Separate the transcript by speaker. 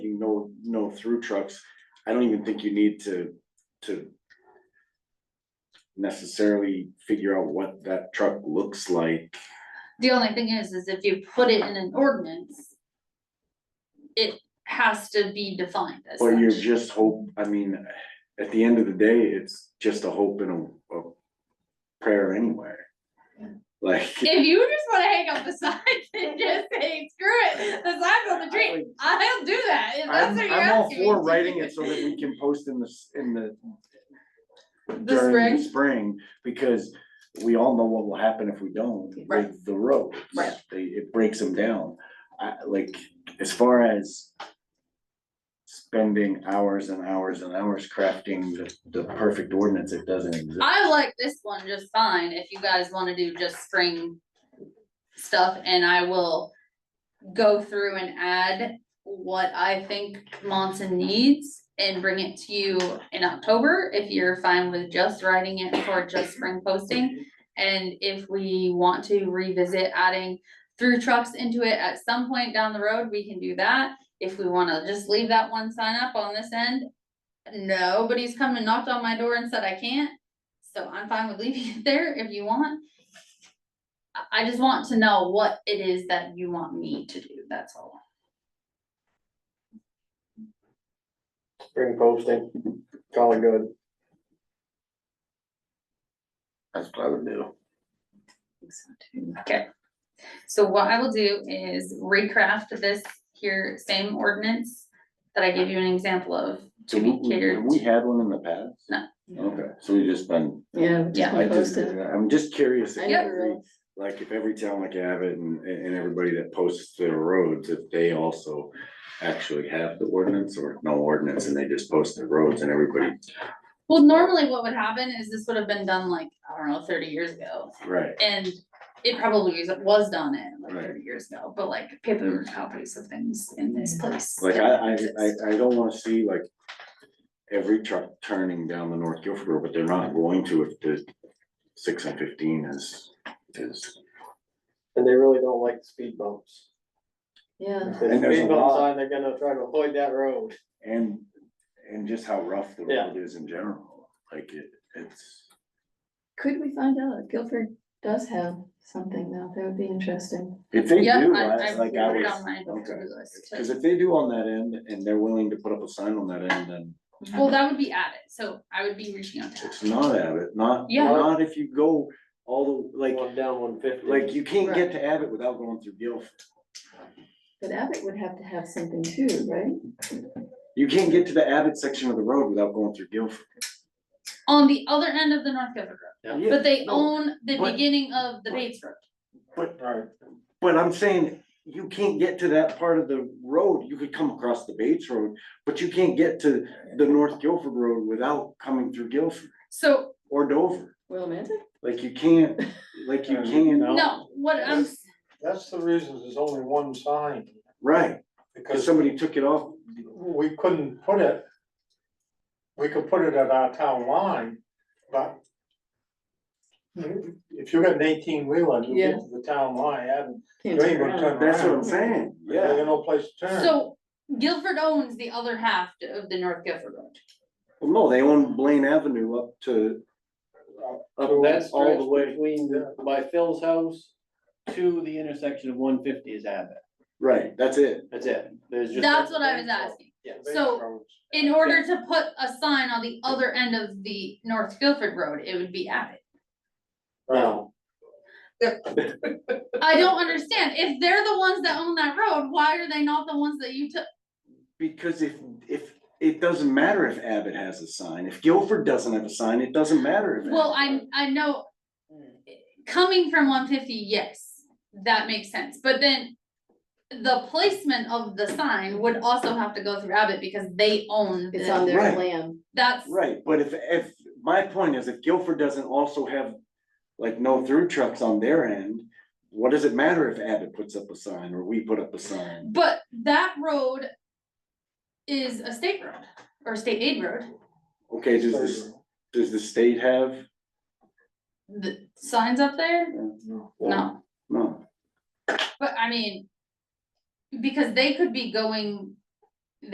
Speaker 1: going through trucks, I don't even think you need to, to necessarily figure out what that truck looks like.
Speaker 2: The only thing is, is if you put it in an ordinance, it has to be defined as
Speaker 1: But you
Speaker 2: such.
Speaker 1: just hope, I mean, at the end of the day, it's just a hope and a, a prayer anyway. Like.
Speaker 2: If you just wanna hang up the sign and just say, screw it, the sign's on the tree, I'll do that, if that's
Speaker 1: I'm,
Speaker 2: what you're
Speaker 1: I'm all
Speaker 2: asking me
Speaker 1: for
Speaker 2: to
Speaker 1: writing
Speaker 2: do.
Speaker 1: it so that we can post in the, s- in the.
Speaker 2: The
Speaker 1: During the
Speaker 2: spring?
Speaker 1: spring, because we all know what will happen if we don't
Speaker 2: Right.
Speaker 1: with the roads.
Speaker 2: Right.
Speaker 1: They, it breaks them down. I, like, as far as. Spending hours and hours and hours crafting the, the perfect ordinance, it doesn't exist.
Speaker 2: I like this one just fine, if you guys wanna do just spring stuff, and I will go through and add what I think Monson needs and bring it to you in October, if you're fine with just writing it for just spring posting. And if we want to revisit adding through trucks into it at some point down the road, we can do that. If we wanna just leave that one sign up on this end, nobody's come and knocked on my door and said I can't. So I'm fine with leaving it there if you want. I, I just want to know what it is that you want me to do, that's all.
Speaker 3: spring posting, call it good.
Speaker 1: That's what I would do.
Speaker 2: Okay, so what I will do is recraft this here same ordinance that I gave you an example of
Speaker 1: So
Speaker 2: to
Speaker 1: we,
Speaker 2: be
Speaker 1: we- have
Speaker 2: catered.
Speaker 1: we had one in the past?
Speaker 2: No.
Speaker 1: Okay, so we just been.
Speaker 4: Yeah,
Speaker 2: Yeah.
Speaker 4: we just
Speaker 1: I
Speaker 4: been
Speaker 1: just,
Speaker 4: posted.
Speaker 1: I'm just curious. if
Speaker 4: I
Speaker 2: Yep.
Speaker 4: never
Speaker 1: every-
Speaker 4: realized.
Speaker 1: like if every town like Abbott and, and and everybody that posts their roads, if they also actually have the ordinance or no ordinance and they just post their roads and everybody,
Speaker 2: Well, normally what would happen is this would have been done like, I don't know, thirty years ago.
Speaker 1: right,
Speaker 2: And it probably was- was done in like
Speaker 1: Right.
Speaker 2: thirty years ago, but like paper copies of things in this place.
Speaker 1: Mm. like
Speaker 2: that don't
Speaker 1: I, I,
Speaker 2: exist.
Speaker 1: I, I don't wanna see like every truck turning down the North Guilford Road, but they're not going to if the six and fifteen is, is.
Speaker 3: And they really don't like the speed bumps.
Speaker 4: Yeah,
Speaker 2: Uh-huh.
Speaker 3: If there's a
Speaker 1: And there's a
Speaker 3: speed bump
Speaker 1: lot.
Speaker 3: sign, they're gonna try to avoid that road.
Speaker 1: And, and just how rough the
Speaker 3: Yeah.
Speaker 1: road is in general, like it, it's,
Speaker 4: could we find out if Guilford does have something now? That would be interesting.
Speaker 1: if they do,
Speaker 2: Yeah,
Speaker 1: I- like I
Speaker 2: put it
Speaker 1: was.
Speaker 2: on my
Speaker 1: okay.
Speaker 2: to-do list, too.
Speaker 1: Cause if they do on that end and they're willing to put up a sign on that end, then
Speaker 2: Well, that would be added, so I would be reaching out to.
Speaker 1: it's not Abbott, not,
Speaker 2: Yeah.
Speaker 1: not if you go all the, like,
Speaker 3: One down one fifty.
Speaker 1: like you can't get to Abbott without going through Guilford.
Speaker 4: But Abbott would have to have something too, right?
Speaker 1: You can't get to the Abbott section of the road without going through Guilford.
Speaker 2: On the other end of the North Guilford Road,
Speaker 3: Yeah.
Speaker 2: but they
Speaker 1: no,
Speaker 2: own the
Speaker 1: but-
Speaker 2: beginning of the Bates Road.
Speaker 1: But,
Speaker 3: Right.
Speaker 1: but I'm saying, you can't get to that part of the road, you could come across the Bates Road, but you can't get to the North Guilford Road without coming through Guilford
Speaker 2: So,
Speaker 1: or Dover.
Speaker 4: Willimantic?
Speaker 1: Like you can't, like you can't,
Speaker 3: Uh, No.
Speaker 2: no, what I'm, s-
Speaker 5: That's the reason there's only one sign,
Speaker 1: right, cause
Speaker 5: because
Speaker 1: somebody took it off,
Speaker 5: we couldn't put it. We could put it at our town line, but. If you got an eighteen wheeler, you get to the town line, and
Speaker 4: Can't
Speaker 5: you ain't
Speaker 4: turn
Speaker 5: gonna
Speaker 4: around.
Speaker 5: turn
Speaker 1: that's what I'm
Speaker 5: around,
Speaker 1: saying,
Speaker 5: you
Speaker 1: yeah.
Speaker 5: got no place to turn.
Speaker 2: so Guilford owns the other half of the North Guilford Road.
Speaker 1: Well, no, they own Blaine Avenue up to. Up
Speaker 3: So that
Speaker 1: all
Speaker 3: stretch
Speaker 1: the way,
Speaker 3: between the- by Phil's house to the intersection of one fifty is Abbott.
Speaker 1: right, that's it.
Speaker 3: That's it. There's just.
Speaker 2: That's what I was asking.
Speaker 3: Yeah.
Speaker 2: so-
Speaker 5: Roads.
Speaker 2: In order to put a sign on the other end of the North Guilford Road, it would be Abbott.
Speaker 3: No,
Speaker 2: I don't understand, if they're the ones that own that road, why are they not the ones that you took?
Speaker 1: Because if, if, it doesn't matter if Abbott has a sign, if Guilford doesn't have a sign, it doesn't matter if.
Speaker 2: Well,
Speaker 1: Abbott-
Speaker 2: I, I know, coming from one fifty, yes, that makes sense, but then. The placement of the sign would also have to go through Abbott because they own
Speaker 4: It's on
Speaker 2: the,
Speaker 1: Right.
Speaker 4: their land.
Speaker 2: that's,
Speaker 1: Right, but if, if, my point is if Guilford doesn't also have, like, no through trucks on their end. What does it matter if Abbott puts up a sign or we put up a sign?
Speaker 2: but that road. Is a state road or state aid road,
Speaker 1: Okay, does this, does the state have?
Speaker 2: the signs up there,
Speaker 5: No.
Speaker 2: no,
Speaker 1: No,
Speaker 2: but I mean. Because they could be going